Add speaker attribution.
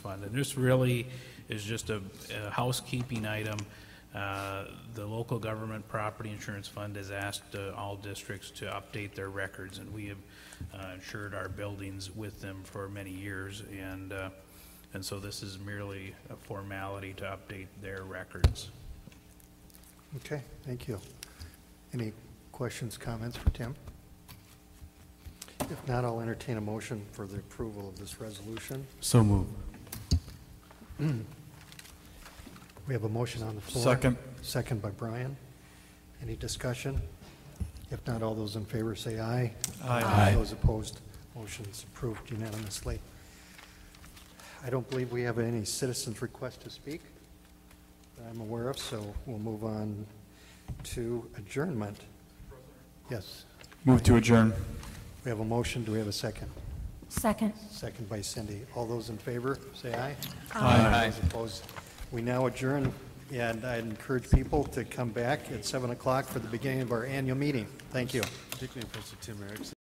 Speaker 1: fund. And this really is just a a housekeeping item. Uh, The local government property insurance fund has asked uh, all districts to update their records, and we have uh, insured our buildings with them for many years, and, uh, and so this is merely a formality to update their records.
Speaker 2: Okay, thank you. Any questions, comments for Tim? If not, I'll entertain a motion for the approval of this resolution.
Speaker 3: So move.
Speaker 2: We have a motion on the floor.
Speaker 3: Second.
Speaker 2: Second by Brian. Any discussion? If not, all those in favor say aye.
Speaker 3: Aye. Aye.
Speaker 2: Those opposed, motion's approved unanimously. I don't believe we have any citizens' request to speak that I'm aware of, so we'll move on to adjournment. Yes,
Speaker 3: Move to adjourn.
Speaker 2: we have a motion. Do we have a second?
Speaker 4: Second.
Speaker 2: Second by Cindy. All those in favor, say aye.
Speaker 3: Aye.
Speaker 2: Those opposed, we now adjourn, and I encourage people to come back at 7 o'clock for the beginning of our annual meeting. Thank you.